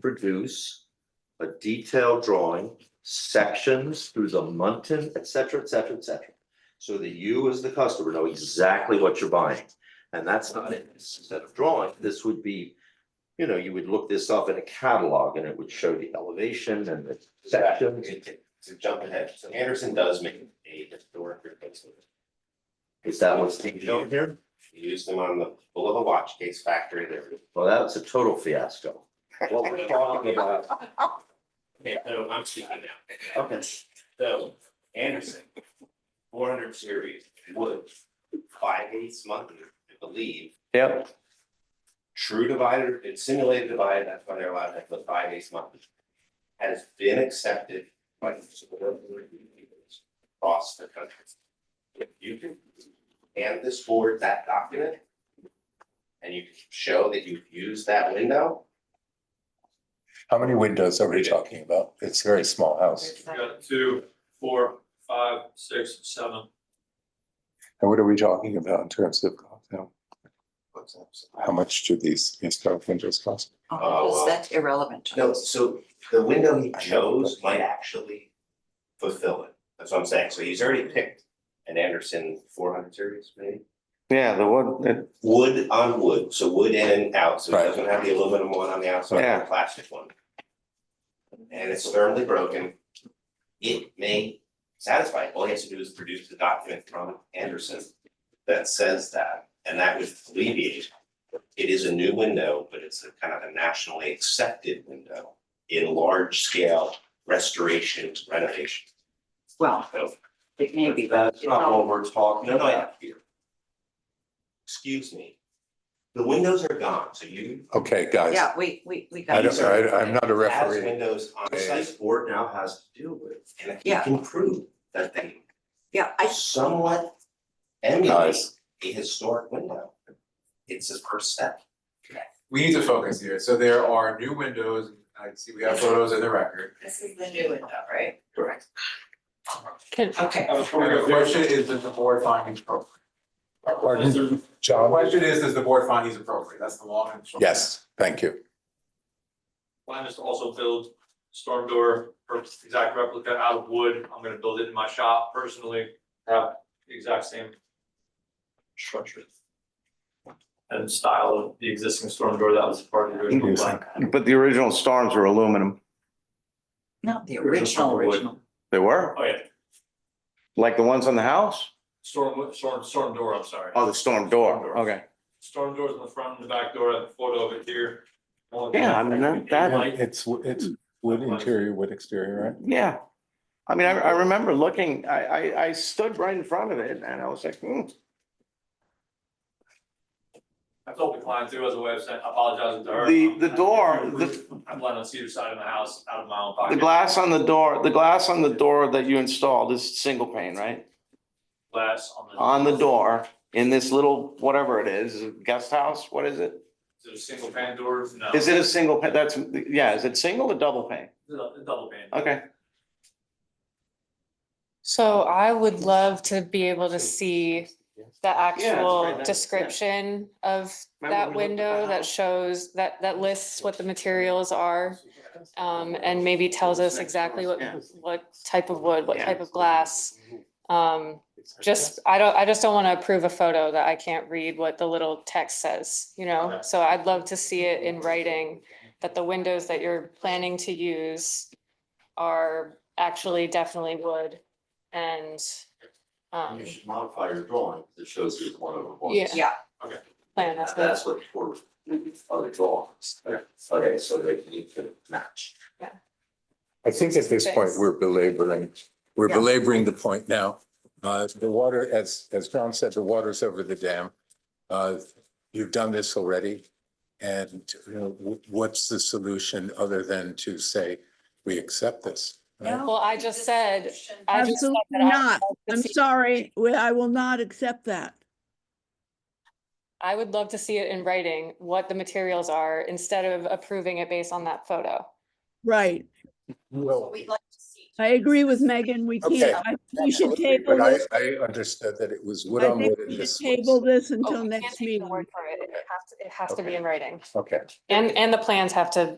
produce a detailed drawing, sections through the mountain, et cetera, et cetera, et cetera. So that you as the customer know exactly what you're buying. And that's not in this set of drawing. This would be, you know, you would look this up in a catalog and it would show the elevation and the sections. To to jump ahead, so Anderson does make a historic replacement. Is that what's being shown They here? Used them on the full of a watch case factory there. Well, that's a total fiasco. What we're talking about, Okay, so I'm speaking now. okay, So Anderson, four hundred series wood, five eighths monthly, I believe. yep, True divider, it's simulated divided, that's why they're allowed to have the five eighths monthly. Has been accepted by the board of reviews across the country. If you can hand this board that document. And you can show that you've used that window. How many windows are we talking about? It's a very small house. Second. Got two, four, five, six, seven. And what are we talking about in terms of, you know, how much do these historic windows cost? Oh, Oh, wow. that's irrelevant to No, us. so the window he chose might actually fulfill it, that's what I'm saying, so he's already picked an Anderson four hundred series maybe? Yeah, the one, that- Wood on wood, so wood in and out, so it Right. doesn't have the aluminum one on the outside, Yeah. the plastic one. And it's firmly broken. It may satisfy, it. all he has to do is produce the document from Anderson that says that, and that would alleviate. It is a new window, but it's a kind of a nationally accepted window in large scale restoration renovation. Well, So it may be, but that's it's all- not what we're talking about here. Excuse me. The windows are gone, so you Okay, guys, yeah, we, we, we got. I don't, it. I, I'm not a as referee. windows on site board now has to deal with, and if you Yeah. can prove that they Yeah, I, somewhat emulate Guys. a historic window. It's a first step. we need to focus here, so there are new windows, I see we have photos in the record. this is the new window, right? Correct. Okay, Oh, And the question is, does the board find these appropriate? Pardon, The John? question is, does the board find these appropriate, that's the long and short. Yes, thank you. Plan is to also build storm door, or exact replica out of wood. I'm gonna build it in my shop personally, have the exact same structure and style of the existing storm door that was part of the original plan. but the original storms were aluminum. not the Original original, wood. original. They were, Oh, yeah, like the ones on the house? storm, storm, storm door, I'm sorry. Oh, the storm door, okay. Storm doors in the front and the back door, I have a photo of it here. Yeah, I mean, that- that- Like, It's, w- it's wood interior, wood exterior, right? Yeah. I mean, I, I remember looking, I, I, I stood right in front of it and I was like, hmm, I told the client too, as a way of saying, I apologize to her. The- the door, I'm- the- I'm on the cedar side of the house, out of my own pocket. the glass on the door, the glass on the door that you installed is single pane, right? Glass on the. On the door, in this little, whatever it is, guest house, what is it? Is it a single pane door? No. Is it a single, pane? that's, yeah, is it single or double pane? It's a Double pane. Okay, So I would love to be able to see the very nice, actual yeah. description of Remember we looked that at the window that house? shows, that, that lists what the materials are. Um, and maybe tells us exactly what, Yeah. what type of wood, what Yeah. type of glass. Um, just, I don't, I just don't want to approve a photo that I can't read what the little text says, you know? Okay. So I'd love to see it in writing, that the windows that you're planning to use are actually definitely wood and, um, you should modify your drawing that shows you one over one. Yeah. Yeah, plan, that's That- what. That's what for other drawings. Okay, so they need to match. I think at this point, Thanks. we're belaboring, we're Yeah. belaboring the point now. Uh, the water, as, as John said, the water's over the dam. Uh, you've done this already. And, you know, wh- what's the solution other than to say, we accept this? right? Well, I just said, I just said Absolutely that I not. would love to I'm see- sorry, we- I will not accept that. I would love to see it in writing, what the materials are, instead of approving it based on that photo. Right. Well, we'd like to see. I agree with Megan. We Okay. can't, I- we should table but I, this. I understood that it was wood I on think wood in we this. should table this Oh, until we can't next take your meeting. word for It It has to- it has to be in writing. Okay. And, and the plans have to